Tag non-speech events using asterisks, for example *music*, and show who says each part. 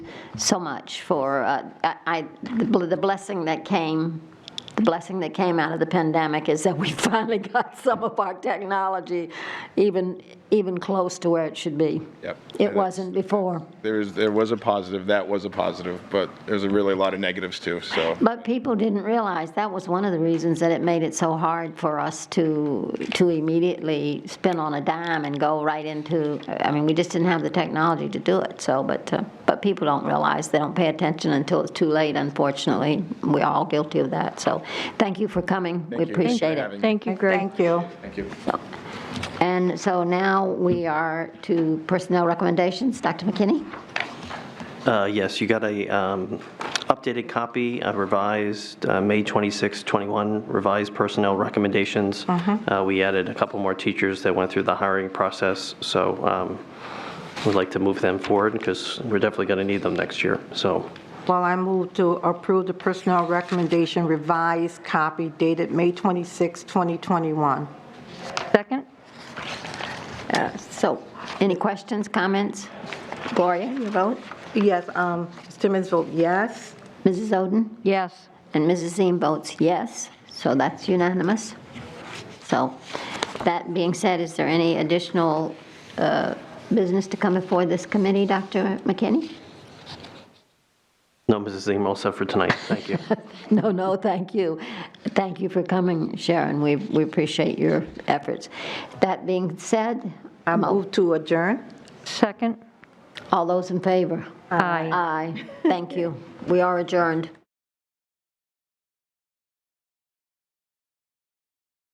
Speaker 1: so much for, uh, I, I- the bl- the blessing that came, the blessing that came out of the pandemic is that we *laughs* finally got some of our technology even, even close to where it should be.
Speaker 2: Yep.
Speaker 1: It wasn't before.
Speaker 2: There is, there was a positive, that was a positive, but there's a really a lot of negatives too, so.
Speaker 1: But people didn't realize, that was one of the reasons that it made it so hard for us to, to immediately spin on a dime and go right into, I mean, we just didn't have the technology to do it, so, but, uh, but people don't realize, they don't pay attention until it's too late, unfortunately. We're all guilty of that, so thank you for coming, we
Speaker 2: Thank you for
Speaker 1: appreciate it.
Speaker 2: having me.
Speaker 3: Thank you, Greg.
Speaker 4: Thank you.
Speaker 2: Thank you.
Speaker 1: And so now we are to personnel recommendations, Dr. McKinney?
Speaker 5: Uh, Yes, you got a um, updated copy, a revised, uh, May 26, 21, revised personnel recommendations. Uh, We added a couple more teachers that went through the hiring process, so um, we'd like to move them forward because we're definitely going to need them next year, so.
Speaker 4: Well, I move to approve the personnel recommendation revised copy dated May 26, 2021.
Speaker 3: Second?
Speaker 1: So, any questions, comments? Gloria, your vote?
Speaker 4: Yes, um, Ms. Timmons vote yes.
Speaker 1: Mrs. Oden?
Speaker 3: Yes.
Speaker 1: And Mrs. Zine votes yes, so that's unanimous. So, that being said, is there any additional uh, business to come before this committee, Dr. McKinney?
Speaker 5: No, Mrs. Zim, all set for tonight. Thank you.
Speaker 1: No, no, thank you. Thank you for coming, Sharon. We we appreciate your efforts. That being said,
Speaker 4: I move to adjourn.
Speaker 3: Second?
Speaker 1: all those in favor?
Speaker 3: Aye.
Speaker 1: Aye, thank you. We are adjourned.